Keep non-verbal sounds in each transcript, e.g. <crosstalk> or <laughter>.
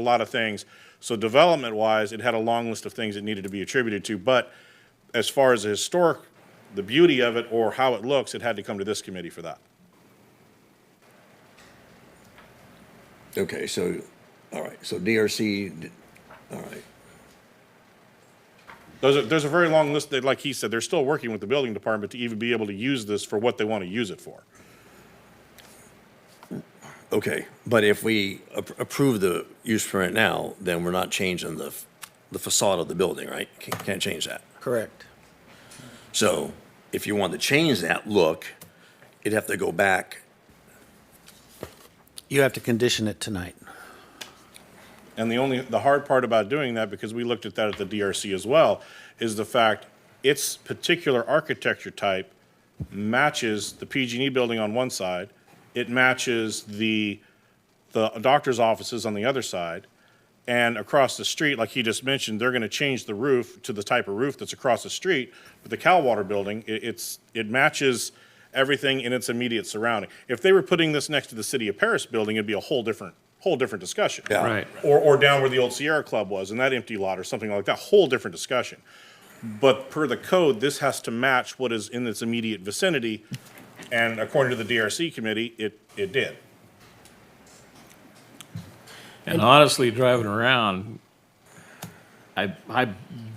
a lot of things. So development-wise, it had a long list of things it needed to be attributed to, but as far as the historic, the beauty of it or how it looks, it had to come to this committee for that. Okay, so, all right, so DRC, d- all right, There's a, there's a very long list that, like he said, they're still working with the building department to even be able to use this for what they want to use it for. okay. But if we ap- approve the use permit now, then we're not changing the, f- the facade of the building, right? Can't can't change that. Correct. So if you want to change that look, you'd have to go back. You have to condition it tonight. And the only, the hard part about doing that, because we looked at that at the DRC as well, is the fact its particular architecture type matches the PG&E E building on one side, it matches the, the doctor's offices on the other side, and across the street, like he just mentioned, they're gonna change the roof to the type of roof that's across the street, but the Calwater building, it, it's, it matches everything in its immediate surrounding. If they were putting this next to the City of Paris building, it'd be a whole different, whole different discussion Yeah. Right. or, or down where the old Sierra Club was in that empty lot or something like that, whole different discussion. But per the code, this has to match what is in its immediate vicinity. And according to the DRC committee, it, it did. And honestly, driving around, I, I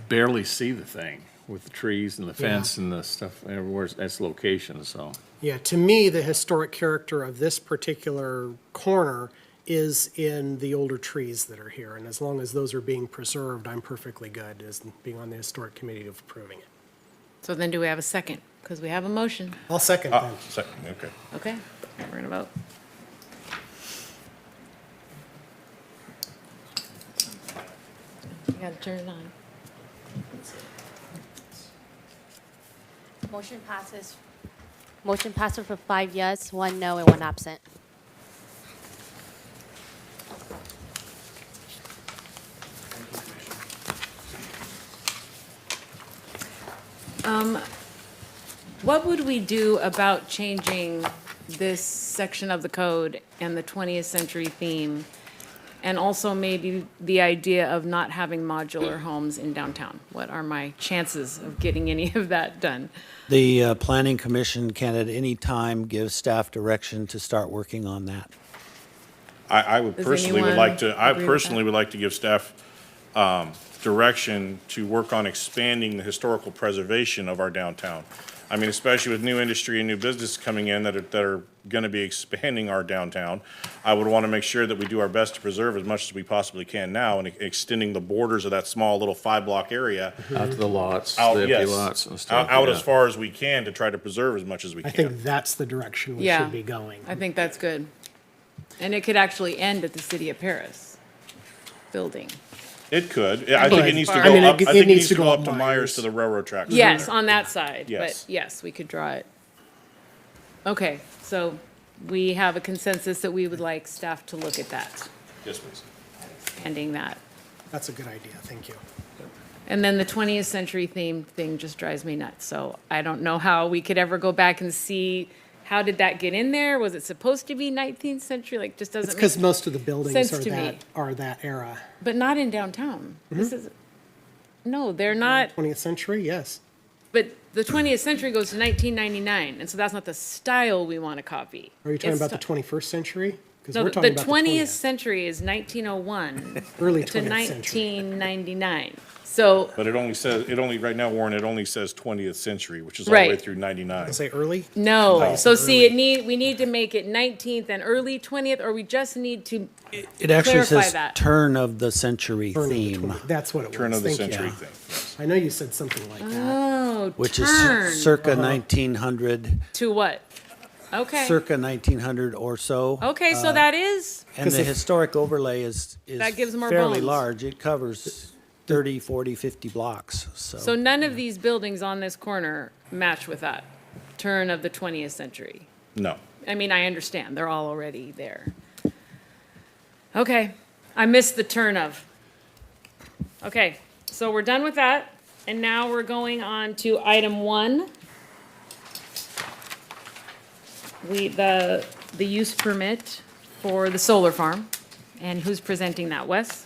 barely see the thing with the trees and the fence and the stuff, everywhere, that's location, so. Yeah, to me, the historic character of this particular corner is in the older trees that are here. And as long as those are being preserved, I'm perfectly good as being on the historic committee of approving it. So then do we have a second? Because we have a motion. I'll second Ah, that. so- okay. Okay, we're gonna vote. You gotta turn it on. Motion passes. Motion passes for five yes, one no, and one absent. What would we do about changing this section of the code and the 20th century theme? And also maybe the idea of not having modular homes in downtown? What are my chances of getting any of that done? The uh, Planning Commission can at any time give staff direction to start working on that. I, I would Does personally would like to, anyone I agree with personally that? would like to give staff, um, direction to work on expanding the historical preservation of our downtown. I mean, especially with new industry and new business coming in that are, that are gonna be expanding our downtown. I would wanna make sure that we do our best to preserve as much as we possibly can now and extending the borders of that small little five-block area. Out to the lots, out- the empty yes, lots and Out, stuff. out as far as we can to try to preserve as much as we I can. think that's the direction we Yeah. should be going. I think that's good. And it could actually end at the City of Paris building. It could. Yeah, I think it But- needs to I mean, go it- up, I it think it needs to go up to Myers Myers. to the railroad tracks. Yes, on that side, but Yes. yes, we could draw it. Okay, so we have a consensus that we would like staff to look at that, Yes, please. ending that. That's a good idea, thank you. And then the 20th century theme thing just drives me nuts, so I don't know how we could ever go back and see, how did that get in there? Was it supposed to be 19th century? Like, just It's doesn't, because make- most of the buildings Sense are to me. that, are that era. but not in downtown. This is, no, they're not. 20th century, yes. But the 20th century goes to 1999, and so that's not the style we want to copy. Are you talking It's about the sti- 21st century? Because No, we're the talking the about 20th century <laughs> is 1901 Early to 20th century. 1999. So, But it only says, it only, right now, Warren, it only says 20th century, which is all the way Right. through 99. Say early? no, so see, it need, we need to make it 19th and early 20th, or we just need to, It actually Clarify says that. turn of the century Turn of the theme, 20 That's what it was. Turn of the Thank you. century thing. I know you said something like that. oh, Uh, which is turn Uh-huh. circa 1900, to what? Okay, circa uh, 1900 or so. okay, so that is, And 'Cause the if- historic overlay is, is That gives more fairly bones. large. It covers 30, 40, 50 blocks, so none of these buildings on this corner match with that turn of the 20th century. No. I mean, I understand, they're all already there. Okay, I missed the turn of. Okay, so we're done with that, and now we're going on to item one. We, the, the use permit for the solar farm And who's presenting that, Wes?